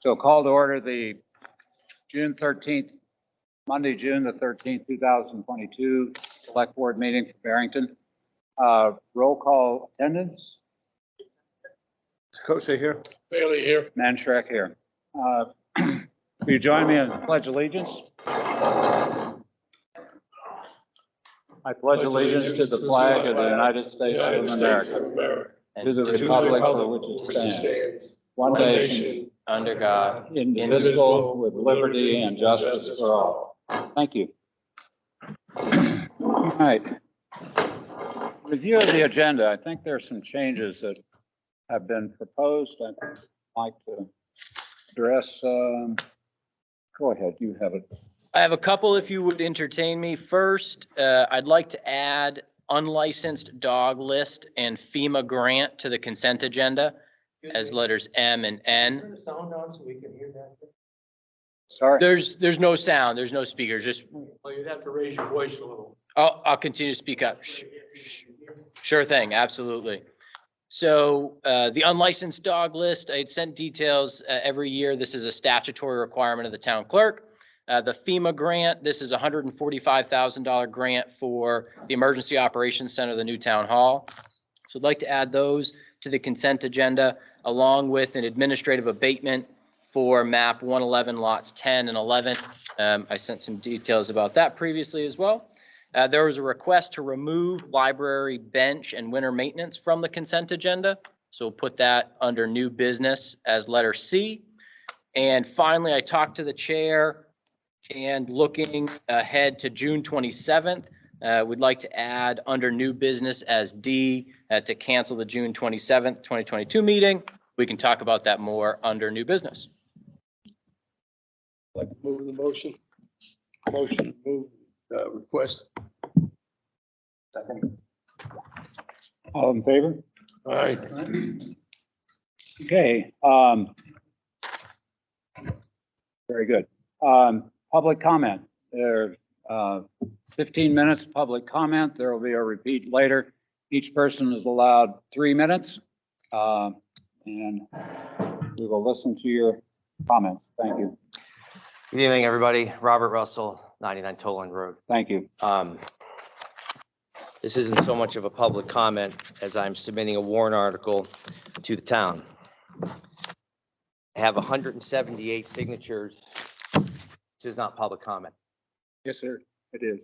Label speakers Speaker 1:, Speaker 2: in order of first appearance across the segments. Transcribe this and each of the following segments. Speaker 1: So call to order the June thirteenth, Monday, June the thirteenth, two thousand twenty-two, select board meeting for Barrington. Uh, roll call attendance,
Speaker 2: Kosha here.
Speaker 3: Bailey here.
Speaker 1: Manshrek here. Uh, Will you join me in pledge allegiance? I pledge allegiance to the flag of the United States of America, and to the republic for which it stands, one nation,
Speaker 4: under God,
Speaker 1: indivisible, with liberty and justice for all. Thank you. All right. Review of the agenda. I think there are some changes that have been proposed. I'd like to address, um, go ahead, you have it.
Speaker 4: I have a couple if you would entertain me. First, uh, I'd like to add unlicensed dog list and FEMA grant to the consent agenda as letters M and N.
Speaker 3: Turn the sound on so we can hear that.
Speaker 1: Sorry.
Speaker 4: There's, there's no sound, there's no speakers, just,
Speaker 3: Well, Oh, you'd have to raise your voice a little.
Speaker 4: I'll, I'll continue to speak up. Shh. Sure thing, absolutely. So uh, the unlicensed dog list, I had sent details uh, every year. This is a statutory requirement of the town clerk. Uh, The FEMA grant, this is a $145,000 grant for the Emergency Operations Center, of the new town hall. So I'd like to add those to the consent agenda, along with an administrative abatement for map 111 lots 10 and 11. Um, I sent some details about that previously as well. Uh, There was a request to remove library bench and winter maintenance from the consent agenda. So we'll put that under new business as letter C. And finally, I talked to the chair and looking ahead to June 27th, uh, we'd like to add under new business as D uh, to cancel the June 27th, 2022 meeting. We can talk about that more under new business.
Speaker 3: Move the motion. Motion, move, uh, request.
Speaker 1: All in favor?
Speaker 3: All right.
Speaker 1: Okay, um, very good. Um, public comment, there, uh, fifteen minutes of public comment, there will be a repeat later. Each person is allowed three minutes, uh, and we will listen to your comments. Thank you,
Speaker 5: Good evening, everybody. Robert Russell, 99 Toland Road.
Speaker 1: thank you.
Speaker 5: Um, This isn't so much of a public comment as I'm submitting a warrant article to the town. I have 178 signatures. This is not public comment.
Speaker 1: Yes, sir. It is.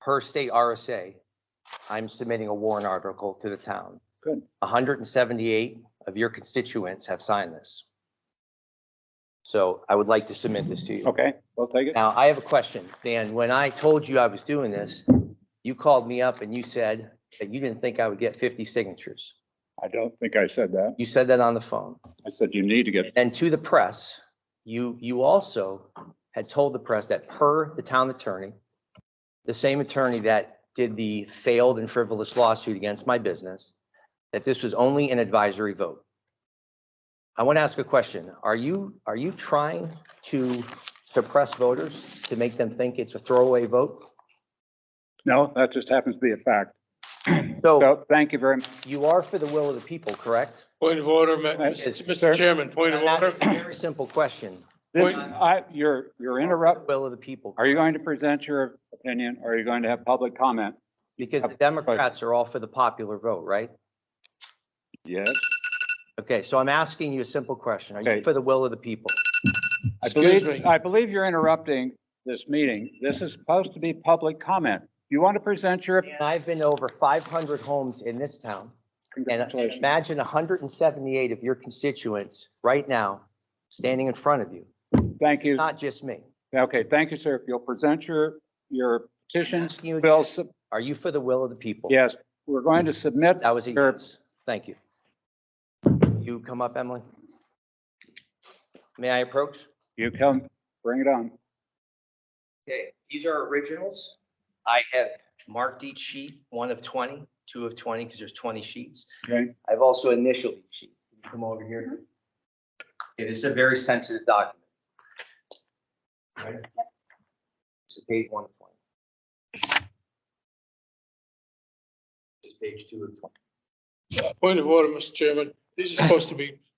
Speaker 5: Per state RSA, I'm submitting a warrant article to the town.
Speaker 1: Good.
Speaker 5: 178 of your constituents have signed this. So I would like to submit this to you.
Speaker 1: Okay, we'll take it.
Speaker 5: Now, I have a question, Dan. When I told you I was doing this, you called me up and you said that you didn't think I would get fifty signatures.
Speaker 1: I don't think I said that.
Speaker 5: You said that on the phone.
Speaker 1: I said you need to get,
Speaker 5: And to the press, you, you also had told the press that per the town attorney, the same attorney that did the failed and frivolous lawsuit against my business, that this was only an advisory vote. I want to ask a question. Are you, are you trying to suppress voters to make them think it's a throwaway vote?
Speaker 1: no, that just happens to be a fact.
Speaker 5: So
Speaker 1: So, thank you very much.
Speaker 5: you are for the will of the people, correct?
Speaker 3: Point of order, Ma-
Speaker 1: Right. Sir?
Speaker 3: Mr. Chairman, point of
Speaker 5: And that's
Speaker 3: order.
Speaker 5: a Very simple question.
Speaker 1: This, I, you're, you're interrupt,
Speaker 5: Will of the people,
Speaker 1: Are you going to present your opinion or are you going to have public comment?
Speaker 5: because the Democrats are all for the popular vote, right?
Speaker 1: Yes.
Speaker 5: Okay, so I'm asking you a simple question. Are
Speaker 1: Okay.
Speaker 5: you for the will of the people?
Speaker 1: I
Speaker 3: Excuse
Speaker 1: believe,
Speaker 3: me.
Speaker 1: I believe you're interrupting this meeting. This is supposed to be public comment. You want to present your,
Speaker 5: And I've been over 500 homes in this town, and
Speaker 1: congratulations.
Speaker 5: imagine 178 of your constituents right now standing in front of you.
Speaker 1: Thank you.
Speaker 5: It's not just me.
Speaker 1: Okay, thank you, sir. If you'll present your, your petition,
Speaker 5: Asking you
Speaker 1: we'll,
Speaker 5: again,
Speaker 1: sub-
Speaker 5: Are you for the will of the people?
Speaker 1: yes, we're going to submit.
Speaker 5: That was a
Speaker 1: your-
Speaker 5: yes. Thank you. You come up, Emily? May I approach?
Speaker 1: You come, bring it on.
Speaker 5: Okay, these are originals. I have marked each sheet, one of 20, two of 20, because there's 20 sheets.
Speaker 1: Okay.
Speaker 5: I've also initialed each sheet. Can you Come over here. It is a very sensitive document. Right? This is page one of 20. This is page two of 20.
Speaker 3: Point of order, Mr. Chairman. These are supposed to be